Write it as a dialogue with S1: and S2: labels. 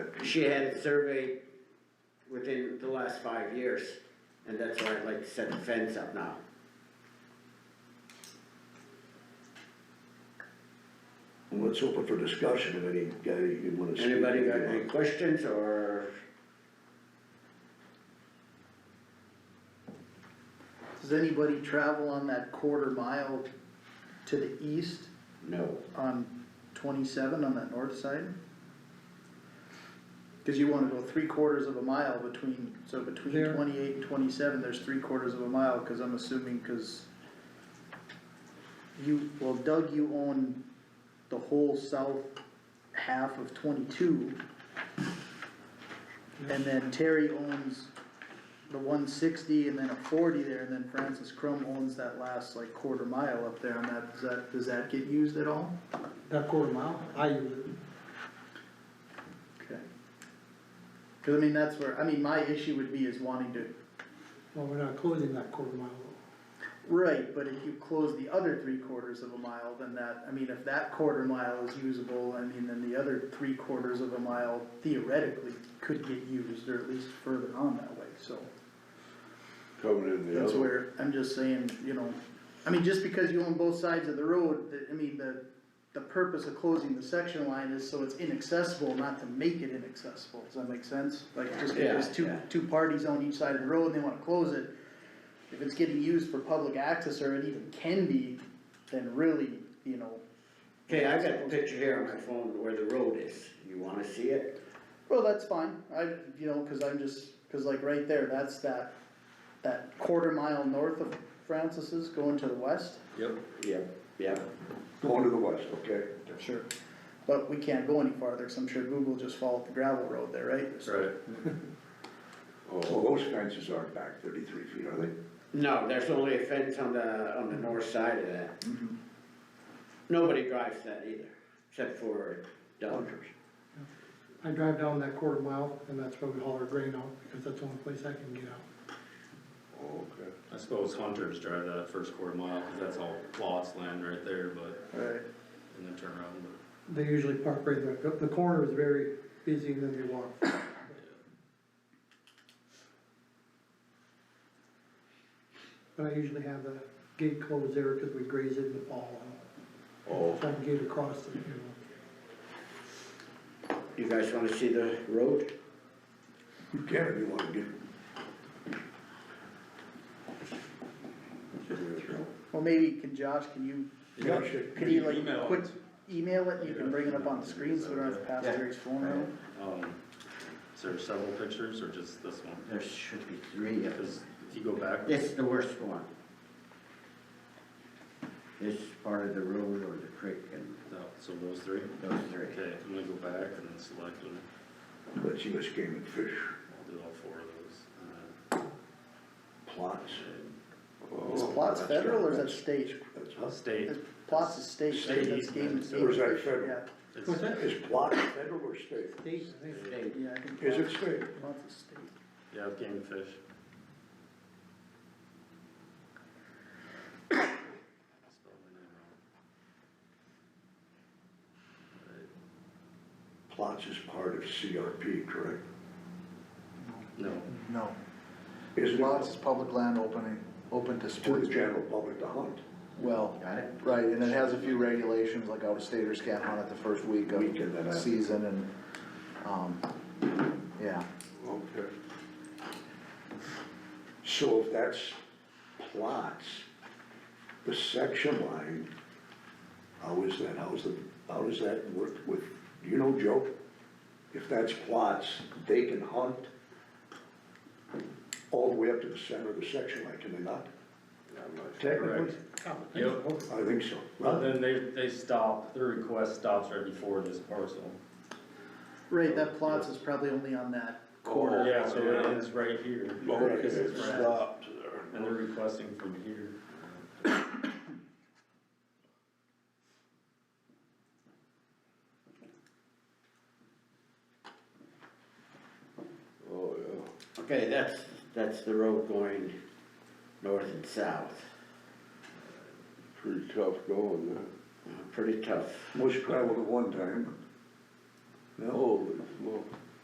S1: she had it surveyed within the last five years, and that's why I'd like to set the fence up now.
S2: Let's open for discussion if any guy you wanna speak.
S1: Anybody got any questions, or
S3: Does anybody travel on that quarter mile to the east
S1: no?
S3: on twenty-seven on that north side? Cause you wanna go three quarters of a mile between, so between
S1: There.
S3: twenty-eight and twenty-seven, there's three quarters of a mile, cause I'm assuming, cause you, well Doug, you own the whole south half of twenty-two. And then Terry owns the one sixty and then a forty there, and then Francis Crum owns that last like quarter mile up there on that, does that, does that get used at all?
S4: That quarter mile, I use it.
S3: Okay. Cause I mean, that's where, I mean, my issue would be is wanting to,
S4: Well, we're not closing that quarter mile. though.
S3: right, but if you close the other three quarters of a mile, then that, I mean, if that quarter mile is usable, I mean, then the other three quarters of a mile theoretically could get used, or at least further on that way, so.
S5: Coming in the
S3: That's
S5: other,
S3: where, I'm just saying, you know, I mean, just because you own both sides of the road, the- I mean, the, the purpose of closing the section line is so it's inaccessible, not to make it inaccessible, does that make sense? Like, just
S1: Yeah,
S3: because two,
S1: yeah.
S3: two parties own each side of the road and they wanna close it, if it's getting used for public access or it even can be, then really, you know,
S1: Okay, I got a picture here on my phone where the road is, you wanna see it?
S3: well, that's fine, I, you know, cause I'm just, cause like right there, that's that, that quarter mile north of Francis's going to the west.
S5: yep,
S1: Yep. Yep,
S2: Going to the west, okay?
S3: Sure, but we can't go any farther, cause I'm sure Google just followed the gravel road there, right?
S5: right.
S2: Well,
S5: Oh,
S2: those fences aren't back thirty-three feet, are they?
S1: no, there's only a fence on the, on the north side of that. Nobody drives that either, except for Doug.
S4: I drive down that quarter mile and that's where we haul our grain out because that's the only place I can get out.
S2: Oh, okay.
S6: I suppose hunters drive that first quarter mile, cause that's all lots land right there, but,
S3: Right.
S6: and then turn around, but.
S4: They usually park right there. The- The corner is very busy and then they walk. But I usually have the gate closed there because we graze it in the fall.
S2: Oh.
S4: Try to get across it, you know.
S1: You guys wanna see the road?
S2: You can if you wanna get.
S3: Well, maybe can Josh, can you,
S2: Yeah, shit.
S3: could you
S6: Email
S3: like,
S6: it.
S3: quick, email it, you can bring it up on the screen so we don't have to pass
S1: Yeah.
S3: Terry's phone around?
S6: Um, is there several pictures or just this one?
S1: There should be three of
S6: Cause if you go back,
S1: It's the worst one. This part of the road or the creek and
S6: no, so those three,
S1: those three.
S6: okay, I'm gonna go back and then select them,
S2: Let's see, game and fish
S6: I'll do all four of those, and then.
S2: plots.
S3: Is plots federal or is that state?
S2: That's
S6: I'll
S2: us.
S6: state.
S3: Is Plots is state, right?
S6: State
S3: that's game,
S6: easement.
S3: game
S2: Or is that
S3: fish,
S2: federal?
S3: Yeah,
S6: It's-
S4: What's that?
S2: Is plots federal or state?
S4: Days, I think.
S3: yeah, I think.
S2: Is it
S3: plots-
S2: state?
S3: Plots is state.
S6: Yeah, I've gained fish. Spelled my name wrong. Alright.
S2: Plots is part of CRP, correct?
S6: No,
S7: No,
S2: Is
S7: lots
S2: it
S7: is public land opening, open to
S2: to the
S7: sports.
S2: general public to hunt?
S7: Well, right, and it has a few regulations, like out-of-staters can't hunt it the first week of
S2: Weekend, that
S7: the
S2: happens.
S7: season and, um, yeah.
S2: Okay. So if that's plots, the section line, how is that, how's the, how does that work with, do you know, Joe? If that's plots, they can hunt all the way up to the center of the section line, can they not? Technically,
S6: correct. Yep.
S2: I think so.
S6: Well, then they, they stop, their request stops right before this parcel.
S3: Right, that plots is probably only on that quarter.
S6: Yeah, so it ends right here.
S2: Okay,
S6: This
S2: it
S6: is right.
S2: stopped
S6: And they're requesting from here.
S2: Oh, yeah.
S1: Okay, that's, that's the road going north and south.
S5: pretty tough going there.
S1: Uh, Pretty tough.
S2: Most traveled at one time. No,
S5: Holy smoke.